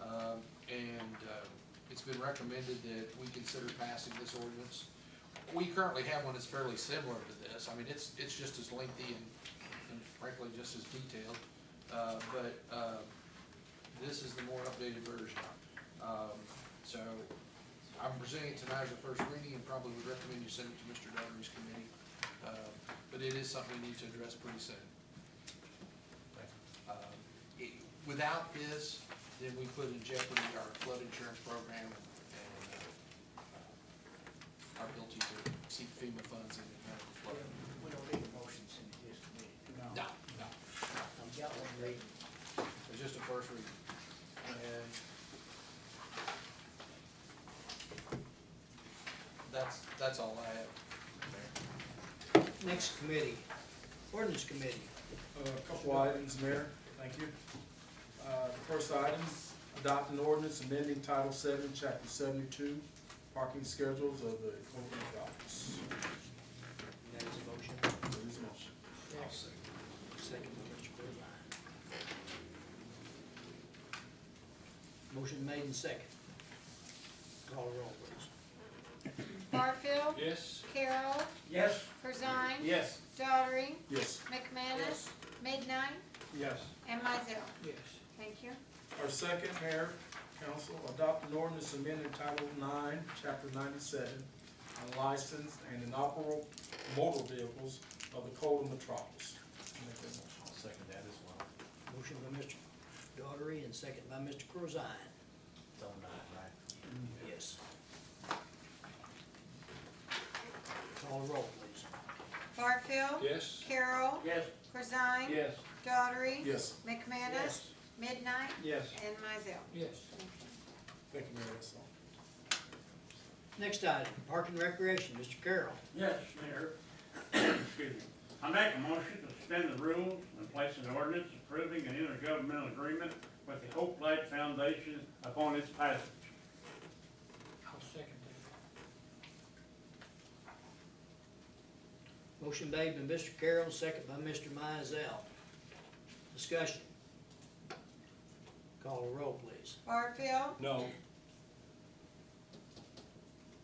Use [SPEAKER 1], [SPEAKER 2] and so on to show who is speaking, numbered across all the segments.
[SPEAKER 1] Um, uh, been recommended that we consider passing this ordinance. We currently have one that's fairly similar to this, I mean, it's, it's just as lengthy and and frankly, just as detailed, uh, but, uh, this is the more updated version. Um, so, I'm presenting it tonight as a first reading and probably would recommend you send it to Mr. Dougherty's committee. Uh, But it is something we need to address pretty soon. Um, it- Without this, then we put in jeopardy our flood insurance program and uh, our ability to seek FEMA funds in the event of flood.
[SPEAKER 2] We don't need motions in this committee.
[SPEAKER 1] No, no,
[SPEAKER 2] I've got one reading.
[SPEAKER 1] it's just a first reading. And that's, that's all I have.
[SPEAKER 2] Next committee, ordinance committee.
[SPEAKER 3] A couple items, Mayor, thank you. Uh, The first item, adopt an ordinance amending Title Seven, Chapter seventy-two, parking schedules of the corporate office.
[SPEAKER 2] That is a motion.
[SPEAKER 3] There is a motion.
[SPEAKER 2] I'll second. Second by Mr. Berline. Motion made and second. Call the roll, please.
[SPEAKER 4] Barfield.
[SPEAKER 5] Yes.
[SPEAKER 4] Carol.
[SPEAKER 5] Yes.
[SPEAKER 4] Corzine.
[SPEAKER 5] Yes.
[SPEAKER 4] Daughtry.
[SPEAKER 3] Yes.
[SPEAKER 4] McManus. Midnight.
[SPEAKER 5] Yes.
[SPEAKER 4] And Mizell.
[SPEAKER 2] Yes.
[SPEAKER 4] Thank you.
[SPEAKER 3] Our second, Mayor, Council, adopt an ordinance amending Title Nine, Chapter ninety-seven, on licensed and inoperable motor vehicles of the Code of Metropolis. Make that motion.
[SPEAKER 5] I'll second that as well.
[SPEAKER 2] Motion by Mr. Daughtry and second by Mr. Corzine.
[SPEAKER 5] It's all right.
[SPEAKER 2] Yes. Call the roll, please.
[SPEAKER 4] Barfield.
[SPEAKER 5] Yes.
[SPEAKER 4] Carol.
[SPEAKER 5] Yes.
[SPEAKER 4] Corzine.
[SPEAKER 5] Yes.
[SPEAKER 4] Daughtry.
[SPEAKER 3] Yes,
[SPEAKER 4] McManus. Midnight.
[SPEAKER 5] Yes.
[SPEAKER 4] And Mizell.
[SPEAKER 5] Yes.
[SPEAKER 3] thank you, Mayor, that's all.
[SPEAKER 2] Next item, Park and Recreation, Mr. Carroll.
[SPEAKER 6] Yes, Mayor. Excuse me. I make a motion to suspend the rules and place an ordinance approving an intergovernmental agreement with the Hope Light Foundation upon its passage.
[SPEAKER 5] I'll second that.
[SPEAKER 2] Motion made by Mr. Carroll, second by Mr. Mizell. Discussion. Call the roll, please.
[SPEAKER 4] Barfield.
[SPEAKER 5] No.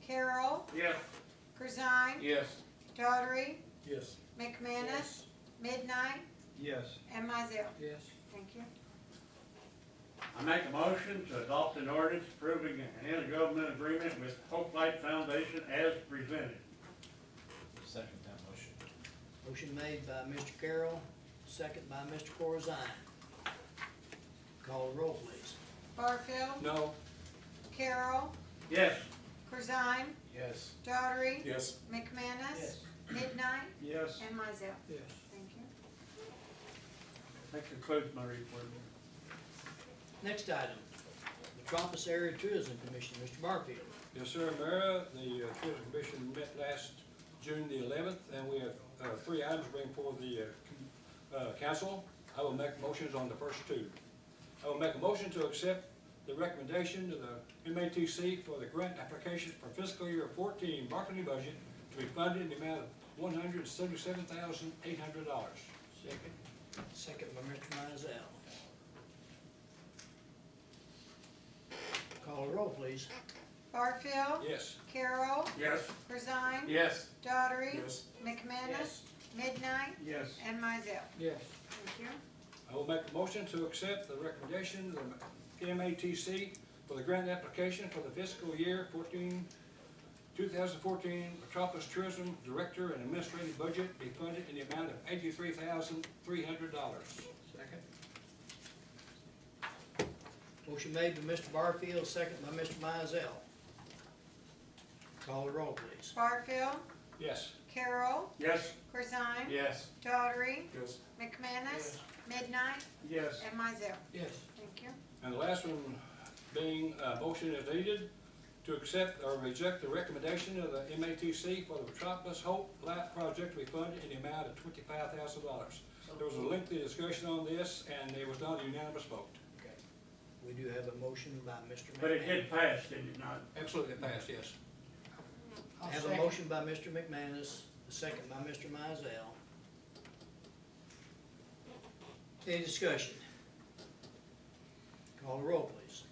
[SPEAKER 4] Carol.
[SPEAKER 6] Yes.
[SPEAKER 4] Corzine.
[SPEAKER 5] Yes.
[SPEAKER 4] Daughtry.
[SPEAKER 3] Yes.
[SPEAKER 4] McManus. Midnight.
[SPEAKER 5] Yes.
[SPEAKER 4] And Mizell.
[SPEAKER 5] Yes.
[SPEAKER 4] Thank you.
[SPEAKER 6] I make a motion to adopt an ordinance approving an intergovernmental agreement with Hope Light Foundation as presented.
[SPEAKER 5] Second that motion.
[SPEAKER 2] Motion made by Mr. Carroll, second by Mr. Corzine. Call the roll, please.
[SPEAKER 4] Barfield.
[SPEAKER 5] No.
[SPEAKER 4] Carol.
[SPEAKER 6] Yes.
[SPEAKER 4] Corzine.
[SPEAKER 5] Yes.
[SPEAKER 4] Daughtry.
[SPEAKER 3] Yes.
[SPEAKER 4] McManus. Midnight.
[SPEAKER 5] Yes.
[SPEAKER 4] And Mizell.
[SPEAKER 5] Yes.
[SPEAKER 4] Thank you.
[SPEAKER 6] That concludes my report. Mayor.
[SPEAKER 2] Next item, Metropolis Area Tourism Commission, Mr. Barfield.
[SPEAKER 7] Yes, sir, Mara, the uh, Tourism Commission met last June the eleventh, and we have uh, three items to bring before the uh, com- uh, council. I will make motions on the first two. I will make a motion to accept the recommendation to the MATC for the grant application for fiscal year fourteen marketing budget to be funded in the amount of one hundred and seventy-seven thousand eight hundred dollars.
[SPEAKER 2] Second. Second by Mr. Mizell. Call the roll, please.
[SPEAKER 4] Barfield.
[SPEAKER 7] Yes,
[SPEAKER 4] Carol.
[SPEAKER 6] Yes.
[SPEAKER 4] Corzine.
[SPEAKER 5] Yes.
[SPEAKER 4] Daughtry.
[SPEAKER 3] Yes.
[SPEAKER 4] McManus. Midnight.
[SPEAKER 6] Yes.
[SPEAKER 4] And Mizell.
[SPEAKER 5] Yes.
[SPEAKER 4] Thank you.
[SPEAKER 7] I will make a motion to accept the recommendation of the MATC for the grant application for the fiscal year 14, 2014 Metropolis Tourism Director and Administrative Budget be funded in the amount of eighty-three thousand, three hundred dollars.
[SPEAKER 5] Second?
[SPEAKER 2] Motion made by Mr. Barfield, second by Mr. Mizell. Call the roll, please.
[SPEAKER 4] Barfield.
[SPEAKER 7] Yes.
[SPEAKER 4] Carol.
[SPEAKER 6] Yes.
[SPEAKER 4] Corzine.
[SPEAKER 5] Yes.
[SPEAKER 4] Daughtry.
[SPEAKER 3] Yes.
[SPEAKER 4] McManus. Midnight.
[SPEAKER 6] Yes.
[SPEAKER 4] And Mizell.
[SPEAKER 5] Yes.
[SPEAKER 4] Thank you.
[SPEAKER 7] And the last one being, uh, motion is needed to accept or reject the recommendation of the MATC for the Metropolis Hope Light Project to be funded in the amount of twenty-five thousand dollars. There was a lengthy discussion on this, and it was not a unanimous vote.
[SPEAKER 2] Okay. We do have a motion by Mr. McManus.
[SPEAKER 6] But it did pass, did it not?
[SPEAKER 7] Absolutely it passed, yes.
[SPEAKER 2] I Have a motion by Mr. McManus, a second by Mr. Mizell. Any discussion? Call the roll, please.